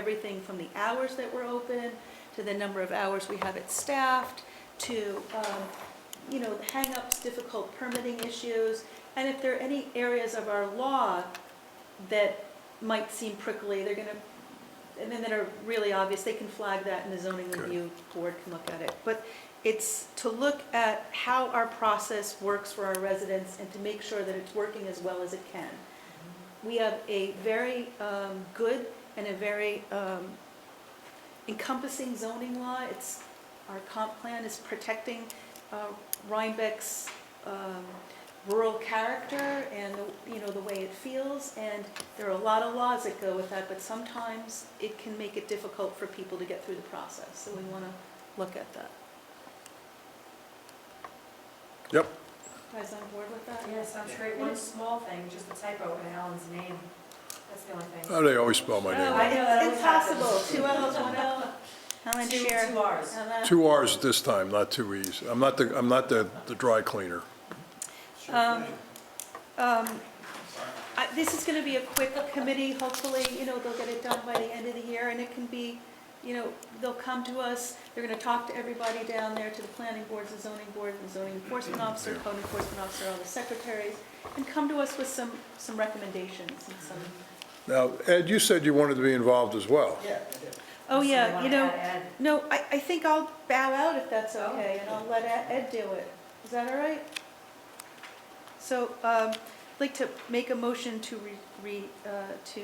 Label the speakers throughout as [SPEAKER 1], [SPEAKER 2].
[SPEAKER 1] everything from the hours that we're open, to the number of hours we have it staffed, to, um, you know, hangups, difficult permitting issues, and if there are any areas of our law that might seem prickly, they're gonna, and then that are really obvious, they can flag that and the zoning
[SPEAKER 2] Good.
[SPEAKER 1] review board can look at it. But it's to look at how our process works for our residents and to make sure that it's working as well as it can. We have a very um, good and a very um, encompassing zoning law. It's, our comp plan is protecting uh, Rhinebeck's um, rural character and, the- you know, the way it feels. And there are a lot of laws that go with that, but sometimes it can make it difficult for people to get through the process. So we want to look at that.
[SPEAKER 2] Yep,
[SPEAKER 1] You Guys on board with that?
[SPEAKER 3] Yeah, sounds great. One small thing, just a typo in Alan's name. That's the only thing.
[SPEAKER 2] Oh, they always spell my
[SPEAKER 1] Oh,
[SPEAKER 2] name.
[SPEAKER 3] I know that
[SPEAKER 1] it's
[SPEAKER 3] always happens.
[SPEAKER 1] Impossible, two L's, one L. Helen
[SPEAKER 3] Two,
[SPEAKER 1] Shear.
[SPEAKER 3] two Rs.
[SPEAKER 1] Helen.
[SPEAKER 2] Two Rs this time, not two Es. I'm not the, I'm not the, the dry cleaner.
[SPEAKER 1] Um, um, I- This is going to be a quick committee, hopefully, you know, they'll get it done by the end of the year, and it can be, you know, they'll come to us, they're going to talk to everybody down there, to the planning boards, the zoning board, the zoning enforcement officer,
[SPEAKER 2] Yeah.
[SPEAKER 1] code enforcement officer, all the secretaries, and come to us with some, some recommendations and some,
[SPEAKER 2] Now, Ed, you said you wanted to be involved as well.
[SPEAKER 3] Yeah.
[SPEAKER 1] oh, yeah, you know,
[SPEAKER 3] Add,
[SPEAKER 1] no, I, I think I'll bow out if that's
[SPEAKER 3] Oh.
[SPEAKER 1] okay, and I'll let Ed Ed do it. Is that all right? So, um, I'd like to make a motion to re, re, uh, to,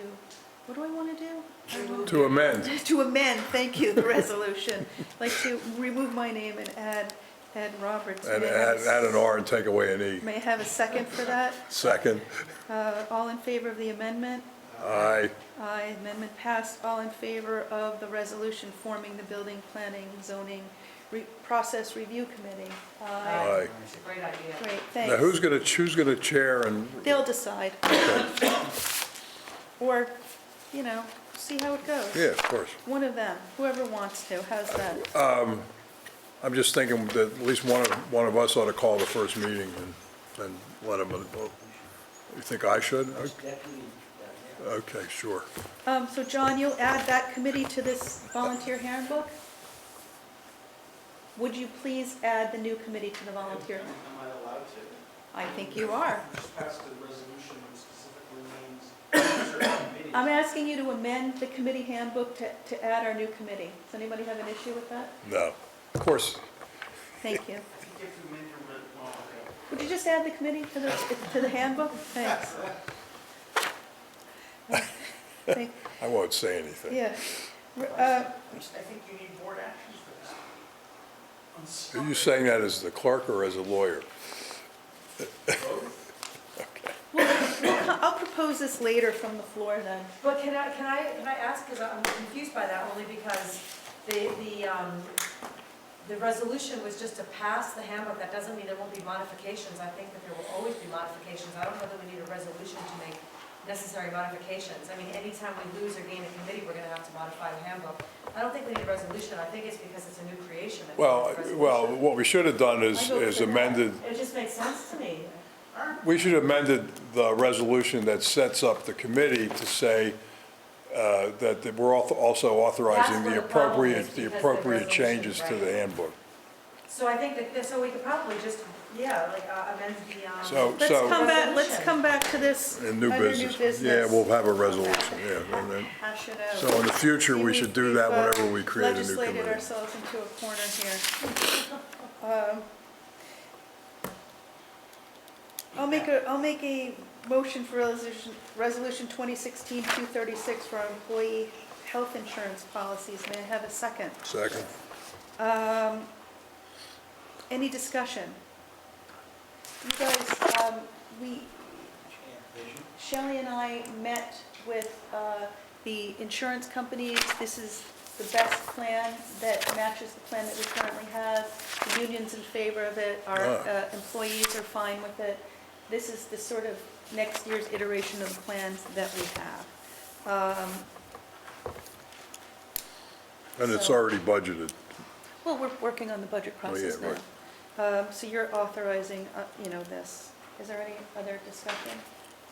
[SPEAKER 1] what do I want to do?
[SPEAKER 3] add, remove.
[SPEAKER 2] To amend,
[SPEAKER 1] To amend, thank you, the resolution. I'd Like to remove my name and add Ed Roberts.
[SPEAKER 2] and
[SPEAKER 1] May I have
[SPEAKER 2] add,
[SPEAKER 1] a
[SPEAKER 2] add an R and take away an E.
[SPEAKER 1] May I have a second for that?
[SPEAKER 2] Second,
[SPEAKER 1] Uh, all in favor of the amendment?
[SPEAKER 2] aye,
[SPEAKER 1] Aye, amendment passed. All in favor of the resolution forming the Building Planning Zoning Re- Process Review Committee? Aye.
[SPEAKER 2] aye.
[SPEAKER 3] It's a great idea.
[SPEAKER 1] Great,
[SPEAKER 2] Now, who's
[SPEAKER 1] thanks.
[SPEAKER 2] gonna, who's gonna chair and,
[SPEAKER 1] They'll decide. Or, you know, see how it goes.
[SPEAKER 2] yeah, of course.
[SPEAKER 1] One of them, whoever wants to, how's that?
[SPEAKER 2] I'm just thinking that at least one of, one of us ought to call the first meeting and, and let them, you think I should? Okay, sure.
[SPEAKER 1] Um, so John, you'll add that committee to this volunteer handbook? Would you please add the new committee to the volunteer?
[SPEAKER 4] Am I allowed to?
[SPEAKER 1] I think you are.
[SPEAKER 4] Just passed a resolution that specifically names certain committees.
[SPEAKER 1] I'm asking you to amend the committee handbook to, to add our new committee. Does anybody have an issue with that?
[SPEAKER 2] No, of course,
[SPEAKER 1] Thank you.
[SPEAKER 4] I think if you amend your, re- oh, okay.
[SPEAKER 1] Would you just add the committee to the, to the handbook? Thanks. Thank-
[SPEAKER 2] I won't say anything.
[SPEAKER 1] Yeah. Uh,
[SPEAKER 4] I think you need board action for this. On
[SPEAKER 2] Are you
[SPEAKER 4] something.
[SPEAKER 2] saying that as the clerk or as a lawyer?
[SPEAKER 1] I'll propose this later from the floor then.
[SPEAKER 3] But can I, can I, can I ask, because I'm confused by that only because the, the, um, the resolution was just to pass the handbook. That doesn't mean there won't be modifications. I think that there will always be modifications. I don't know that we need a resolution to make necessary modifications. I mean, anytime we lose or gain a committee, we're gonna have to modify the handbook. I don't think we need a resolution. I think it's because it's a new creation. that we need
[SPEAKER 2] Well,
[SPEAKER 3] a
[SPEAKER 2] well,
[SPEAKER 3] resolution.
[SPEAKER 2] what we should have done
[SPEAKER 1] I
[SPEAKER 2] is,
[SPEAKER 1] vote
[SPEAKER 2] is
[SPEAKER 1] for that.
[SPEAKER 2] amended,
[SPEAKER 3] It just makes sense to me.
[SPEAKER 2] we should have amended the resolution that sets up the committee to say uh, that that we're al- also authorizing
[SPEAKER 3] That's
[SPEAKER 2] the
[SPEAKER 3] where the problem is,
[SPEAKER 2] appropriate, the
[SPEAKER 3] because the
[SPEAKER 2] appropriate
[SPEAKER 3] resolution,
[SPEAKER 2] changes to the
[SPEAKER 3] right.
[SPEAKER 2] handbook.
[SPEAKER 3] So I think that, so we could probably just, yeah, like uh, amend the, um.
[SPEAKER 2] So-
[SPEAKER 1] Let's come back, let's
[SPEAKER 3] Resolution.
[SPEAKER 1] come back to this
[SPEAKER 2] And new
[SPEAKER 1] under
[SPEAKER 2] business. Yeah, we'll have a resolution, yeah. and then-
[SPEAKER 1] Hash it out.
[SPEAKER 2] So in the future, we
[SPEAKER 1] See,
[SPEAKER 2] should do
[SPEAKER 1] we've,
[SPEAKER 2] that
[SPEAKER 1] uh,
[SPEAKER 2] whenever we create a new
[SPEAKER 1] Legislated
[SPEAKER 2] committee.
[SPEAKER 1] ourselves into a corner here. Um, I'll make a, I'll make a motion for resolution, resolution 2016-236 for our employee health insurance policies. May I have a second?
[SPEAKER 2] Second,
[SPEAKER 1] Um, Any discussion? You guys, um, we, Shelley and I met with uh, the insurance companies. This is the best plan that matches the plan that we currently have. The union's in favor of it, our
[SPEAKER 2] Ah.
[SPEAKER 1] uh, employees are fine with it. This is the sort of next year's iteration of the plans that we have. Um,
[SPEAKER 2] and it's
[SPEAKER 1] So-
[SPEAKER 2] already budgeted.
[SPEAKER 1] Well, we're working on the budget
[SPEAKER 2] Oh, yeah,
[SPEAKER 1] process now. Um, So you're authorizing, uh, you know, this. Is there any other discussion?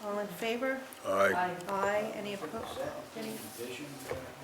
[SPEAKER 1] All in favor?
[SPEAKER 2] Aye,
[SPEAKER 3] Aye.
[SPEAKER 1] Aye. Any opposed? Any-
[SPEAKER 5] Vision, uh,